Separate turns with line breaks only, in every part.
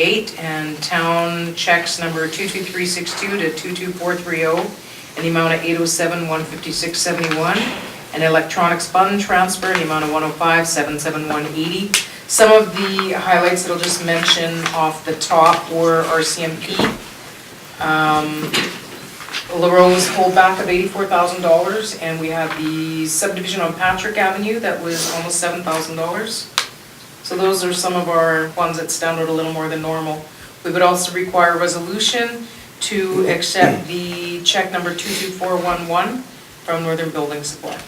Eight and town checks number 22362 to 22430 oh, in the amount of 807-15671, and electronics fund transfer in the amount of 105-77180. Some of the highlights that I'll just mention off the top were RCMP, um, LaRose holdback of $84,000, and we have the subdivision on Patrick Avenue that was almost $7,000. So those are some of our ones that stand out a little more than normal. We would also require a resolution to accept the check number 22411 from Northern Building Supply.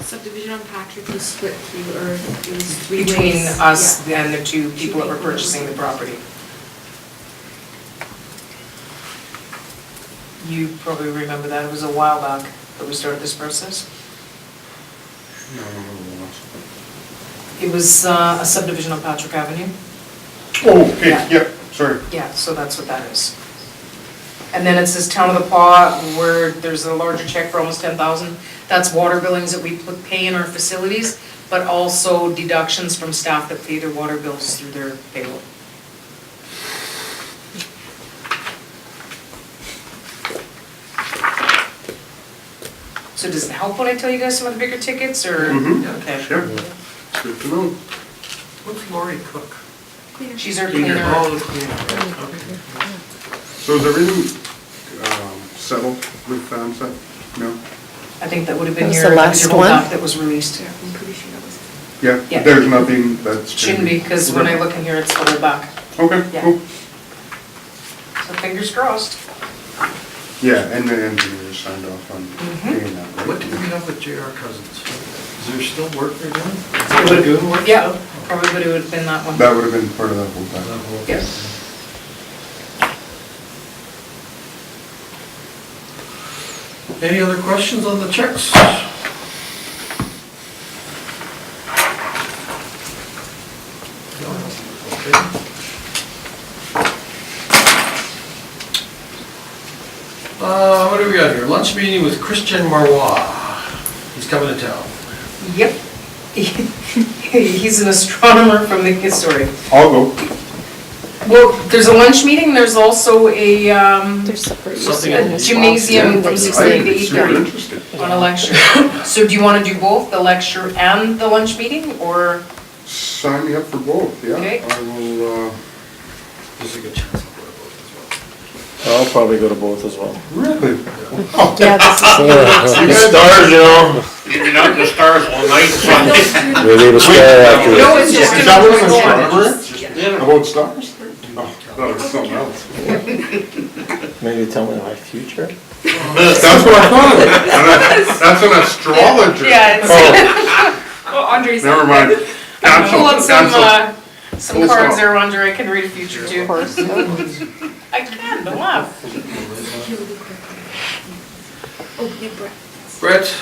Subdivision on Patrick was split through, or it was three ways.
Between us
Yeah.
and the two people that were purchasing the property. You probably remember that, it was a while back that we started this process.
No, no, no, no, no.
It was uh, a subdivision on Patrick Avenue.
Oh, okay,
Yeah.
yeah, sorry.
Yeah, so that's what that is. And then it says Town of the Paw, where there's a larger check for almost ten thousand. That's water billings that we pl- pay in our facilities, but also deductions from staff that pay their water bills through their payroll. So does it help when I tell you guys some of the bigger tickets, or?
Mhm.
Okay.
Sure. It's Good to know.
What's Lori Cook?
Cleaner.
She's our
Cleaner.
cleaner.
Oh, the cleaner,
So is everything um, settled with FAMSA? No?
I think that would have been
That was
your,
the
that was
last
your
one?
holdup that was released.
Yeah, I'm pretty sure that was.
Yeah.
Yeah, there's nothing that's.
Shouldn't be, because when I look in here, it's double back.
Okay,
Yeah.
cool.
So fingers crossed.
Yeah, and the engineer signed off on
Mhm.
doing that.
okay.
right?
What did we have with J.R. Cousins? Is there still work they're doing?
It would've-
Lagoon work
Yeah,
still?
probably would have been that one.
That would have been part of that whole
That
thing.
whole-
Yes.
Any other questions on the checks? No? Okay. Uh, what do we got here? Lunch meeting with Christian Marois. He's coming to town.
Yep. He's an astronomer from the, sorry.
I'll go.
Well, there's a lunch meeting, there's also a, um,
There's separate
Something-
museum
A
gymnasium from
that you
6:30
can-
to
It's super
8:30.
interesting.
on a lecture. So do you want to do both, the lecture and the lunch meeting, or?
Sign me up for both, yeah.
Okay.
I will, uh,
There's a good chance I'll go to both
I'll probably go to both as well.
really?
Yeah, this is
The stars, you know,
You've been out in the stars all night,
No,
son.
it's through-
they leave a star after
No,
it.
it's just.
Is that what it's
Yeah.
astronomer?
Yeah.
About stars? Oh, that was something else.
Maybe tell me my future.
That's what I thought of it. And I- That's an astrologer.
Yeah, it's,
Oh,
well, Oh, Andre's.
Never mind. Cancel,
Pull up some,
cancel.
uh, some
Full
cards
stop.
there, Andre, I can read future
Of
too.
course, yeah.
I can, don't laugh.
as well.
He'll be quick. Oh, yeah, Brett.
Brett,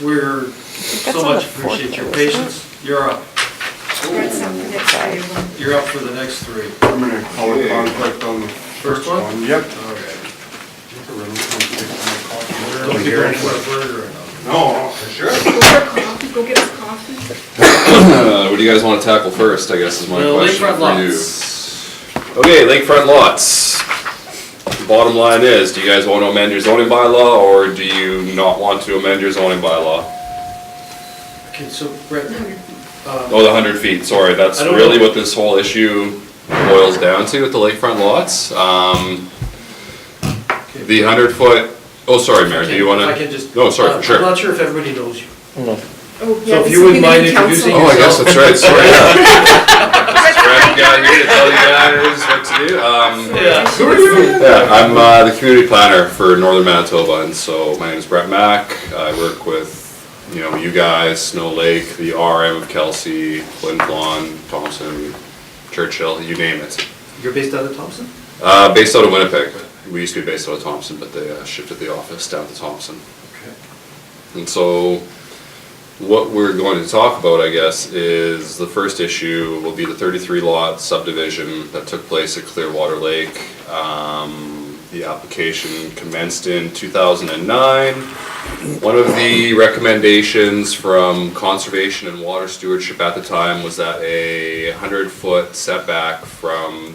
we're,
that's
so
on
much
the fourth
appreciate your
though, isn't it?
patience. You're up.
Brett's up for next year.
You're up for the next three.
I'm gonna call a conflict on the
First
first
one?
one. Yep.
All right.
Don't
Don't be going for a burger or nothing.
No, for sure.
Go for a coffee, go get us coffee.
Uh, what do you guys want to tackle first, I guess, is my
Well,
question
lakefront
for you.
lots.
Okay, lakefront lots. Bottom line is, do you guys want to amend your zoning bylaw, or do you not want to amend your zoning bylaw?
Okay, so Brett, uh,
Oh, the hundred feet, sorry, that's
I don't
really
know.
what this whole issue boils down to with the lakefront lots. Um, the hundred foot, oh, sorry, Mary, do you wanna?
I can just.
No, sorry, for
I'm
sure.
not sure if everybody knows you.
no.
Oh, yeah,
So if
this
you
will be
wouldn't
the
mind
new
introducing
council.
Oh, I guess that's right, sorry. Brad, guy here to tell you guys what to do, um.
Yeah.
Who are you?
Yeah, I'm uh, the community planner for Northern Manitoba, and so my name is Brett Mack. I work with, you know, you guys, Snow Lake, the RM of Kelsey, Flin Flon, Thompson, Churchill, you name it.
You're based out of Thompson?
Uh, based out of Winnipeg. We used to be based out of Thompson, but they uh, shifted the office down to Thompson.
Okay.
And so, what we're going to talk about, I guess, is the first issue will be the thirty-three lot subdivision that took place at Clearwater Lake. Um, the application commenced in two thousand and nine. One of the recommendations from Conservation and Water Stewardship at the time was that a hundred-foot setback from